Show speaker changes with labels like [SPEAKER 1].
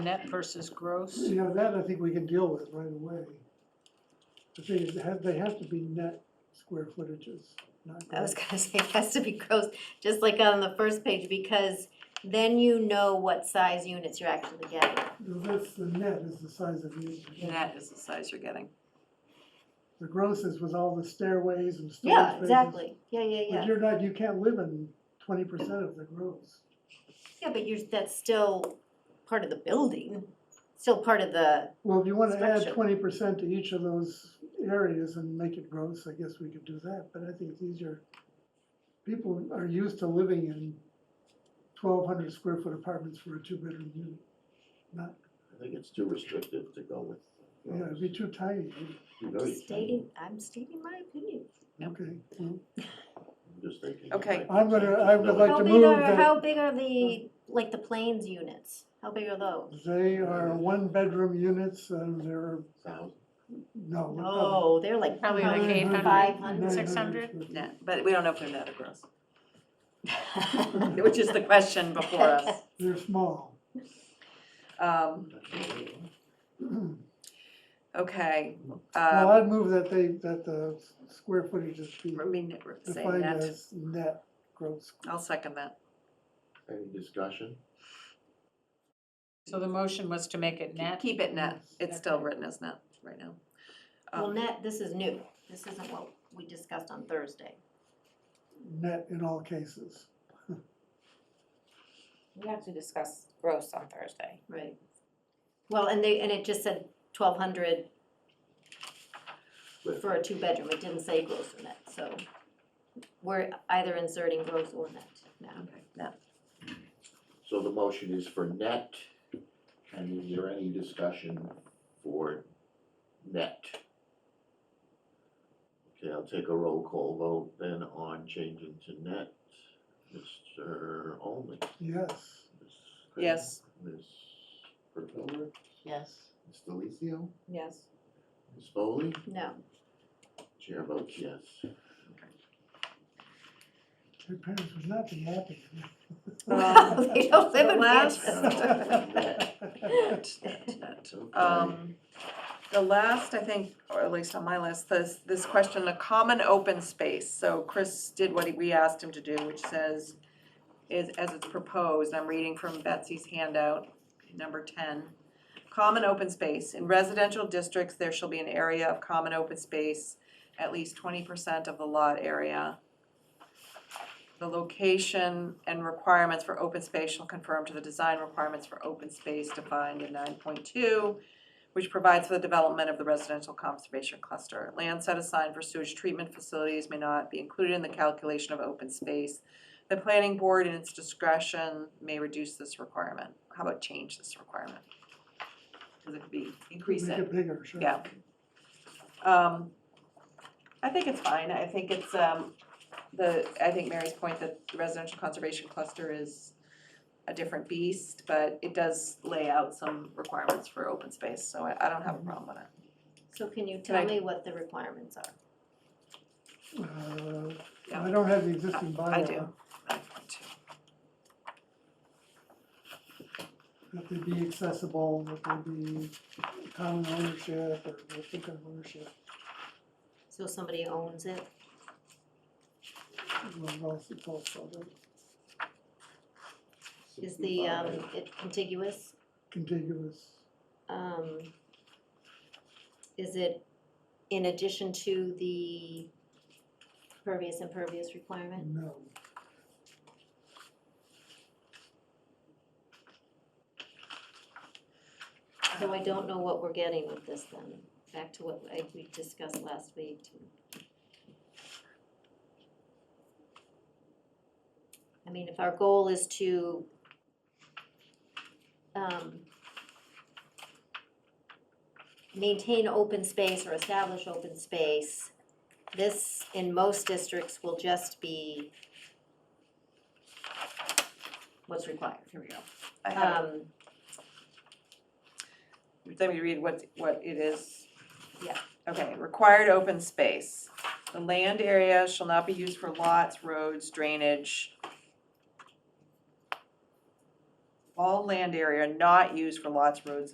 [SPEAKER 1] net versus gross?
[SPEAKER 2] You know, that I think we can deal with right away. The thing is, they have, they have to be net square footages, not.
[SPEAKER 3] I was
[SPEAKER 2] gross.
[SPEAKER 3] gonna say, it has to be gross, just like on the first page, because then you know what size units you're actually getting.
[SPEAKER 2] That's, the net is the size of the.
[SPEAKER 1] Net is the size you're getting.
[SPEAKER 2] The gross is with all the stairways and storage
[SPEAKER 3] Yeah,
[SPEAKER 2] spaces.
[SPEAKER 3] exactly, yeah, yeah,
[SPEAKER 2] But
[SPEAKER 3] yeah,
[SPEAKER 2] you're not, you can't live in twenty percent of the gross.
[SPEAKER 3] yeah, but you're, that's still part of the building, still part of the,
[SPEAKER 2] Well, if you wanna add
[SPEAKER 3] Structure.
[SPEAKER 2] twenty percent to each of those areas and make it gross, I guess we could do that, but I think it's easier. People are used to living in twelve hundred square foot apartments for a two bedroom unit, not,
[SPEAKER 4] I think it's too restrictive to go with. uh,
[SPEAKER 2] you know, it'd be too tiny,
[SPEAKER 4] Too very tiny.
[SPEAKER 3] stating, I'm stating my opinion.
[SPEAKER 2] okay.
[SPEAKER 4] I'm just thinking.
[SPEAKER 1] Okay.
[SPEAKER 2] I'm gonna- I would like-
[SPEAKER 3] How
[SPEAKER 2] to
[SPEAKER 3] big
[SPEAKER 2] move Oh.
[SPEAKER 3] are,
[SPEAKER 2] the-
[SPEAKER 3] how big are the, like the planes units, how big are those?
[SPEAKER 2] They are one bedroom units and they're,
[SPEAKER 4] Thousand.
[SPEAKER 2] no.
[SPEAKER 1] Oh,
[SPEAKER 2] they're probably-
[SPEAKER 3] No, Oh, they're like.
[SPEAKER 5] Probably like 800,
[SPEAKER 3] Five
[SPEAKER 5] 600?
[SPEAKER 2] square feet.
[SPEAKER 1] Net, but we don't know if they're net or gross,
[SPEAKER 3] hundred.
[SPEAKER 1] which is the question before us.
[SPEAKER 2] They're small.
[SPEAKER 1] Um, Uh,
[SPEAKER 2] Well,
[SPEAKER 1] okay, um,
[SPEAKER 2] I'd move that they, that the square footage is be
[SPEAKER 1] I mean, say
[SPEAKER 2] defined
[SPEAKER 1] net,
[SPEAKER 2] as net gross.
[SPEAKER 1] I'll second that.
[SPEAKER 4] Any discussion?
[SPEAKER 5] So the motion was to make it net?
[SPEAKER 1] Keep it net, it's still written as net right now.
[SPEAKER 3] Well,
[SPEAKER 1] Um,
[SPEAKER 3] net, this is new, this isn't what we discussed on Thursday.
[SPEAKER 2] net in all cases.
[SPEAKER 6] We have to discuss gross on Thursday.
[SPEAKER 3] Right. Well, and they, and it just said twelve hundred
[SPEAKER 4] Right.
[SPEAKER 3] for a two-bedroom, it didn't say gross or net, so we're either inserting gross or net now.
[SPEAKER 1] Okay, net,
[SPEAKER 4] So the motion is for net, and is there any discussion for net? Okay, I'll take a roll call vote then on changing to net. Mr. Olman.
[SPEAKER 2] Yes,
[SPEAKER 4] Ms. Craig,
[SPEAKER 1] Yes.
[SPEAKER 4] Ms. Pertover,
[SPEAKER 6] Yes.
[SPEAKER 4] Ms. Delicio,
[SPEAKER 1] yes.
[SPEAKER 4] Ms. Foley,
[SPEAKER 3] No,
[SPEAKER 4] chair votes yes.
[SPEAKER 2] your parents would not be happy.
[SPEAKER 1] Um,
[SPEAKER 3] they don't live
[SPEAKER 1] The
[SPEAKER 3] in
[SPEAKER 1] last-
[SPEAKER 3] mansions.
[SPEAKER 1] Net, net, net.
[SPEAKER 4] Okay.
[SPEAKER 1] Um, the last, I think, or at least on my list, this, this question, a common open space, so Chris did what we asked him to do, which says, is, as it's proposed, I'm reading from Betsy's handout, number ten. Common open space, in residential districts, there shall be an area of common open space, at least twenty percent of the lot area. The location and requirements for open space shall conform to the design requirements for open space defined in nine point two, which provides for the development of the residential conservation cluster. Land set aside for sewage treatment facilities may not be included in the calculation of open space. The planning board in its discretion may reduce this requirement. How about change this requirement? Cause it could be, increase
[SPEAKER 2] Make
[SPEAKER 1] it.
[SPEAKER 2] it bigger, sure.
[SPEAKER 1] Yeah. Um, I think it's fine, I think it's, um, the, I think Mary's point that the residential conservation cluster is a different beast, but it does lay out some requirements for open space, so I, I don't have a problem with it.
[SPEAKER 3] So can you
[SPEAKER 1] Right.
[SPEAKER 3] tell me what the requirements are?
[SPEAKER 2] Uh,
[SPEAKER 1] Yeah.
[SPEAKER 2] I don't have the existing bylaw.
[SPEAKER 1] I do. I want to.
[SPEAKER 2] That they be accessible, that they be common ownership or replicate ownership,
[SPEAKER 3] So somebody owns it,
[SPEAKER 2] well, else it's also
[SPEAKER 3] is the, um, it contiguous,
[SPEAKER 2] contiguous.
[SPEAKER 3] um, is it in addition to the pervious impervious requirement?
[SPEAKER 2] No,
[SPEAKER 3] So I don't know what we're getting with this then, back to what I- we discussed last week. I mean, if our goal is to, um, maintain open space or establish open space, this in most districts will just be what's required.
[SPEAKER 1] Here we go. I have,
[SPEAKER 3] Um,
[SPEAKER 1] let me read what, what it is.
[SPEAKER 3] Yeah.
[SPEAKER 1] Okay, required open space. The land area shall not be used for lots, roads, drainage, all land area not used for lots, roads,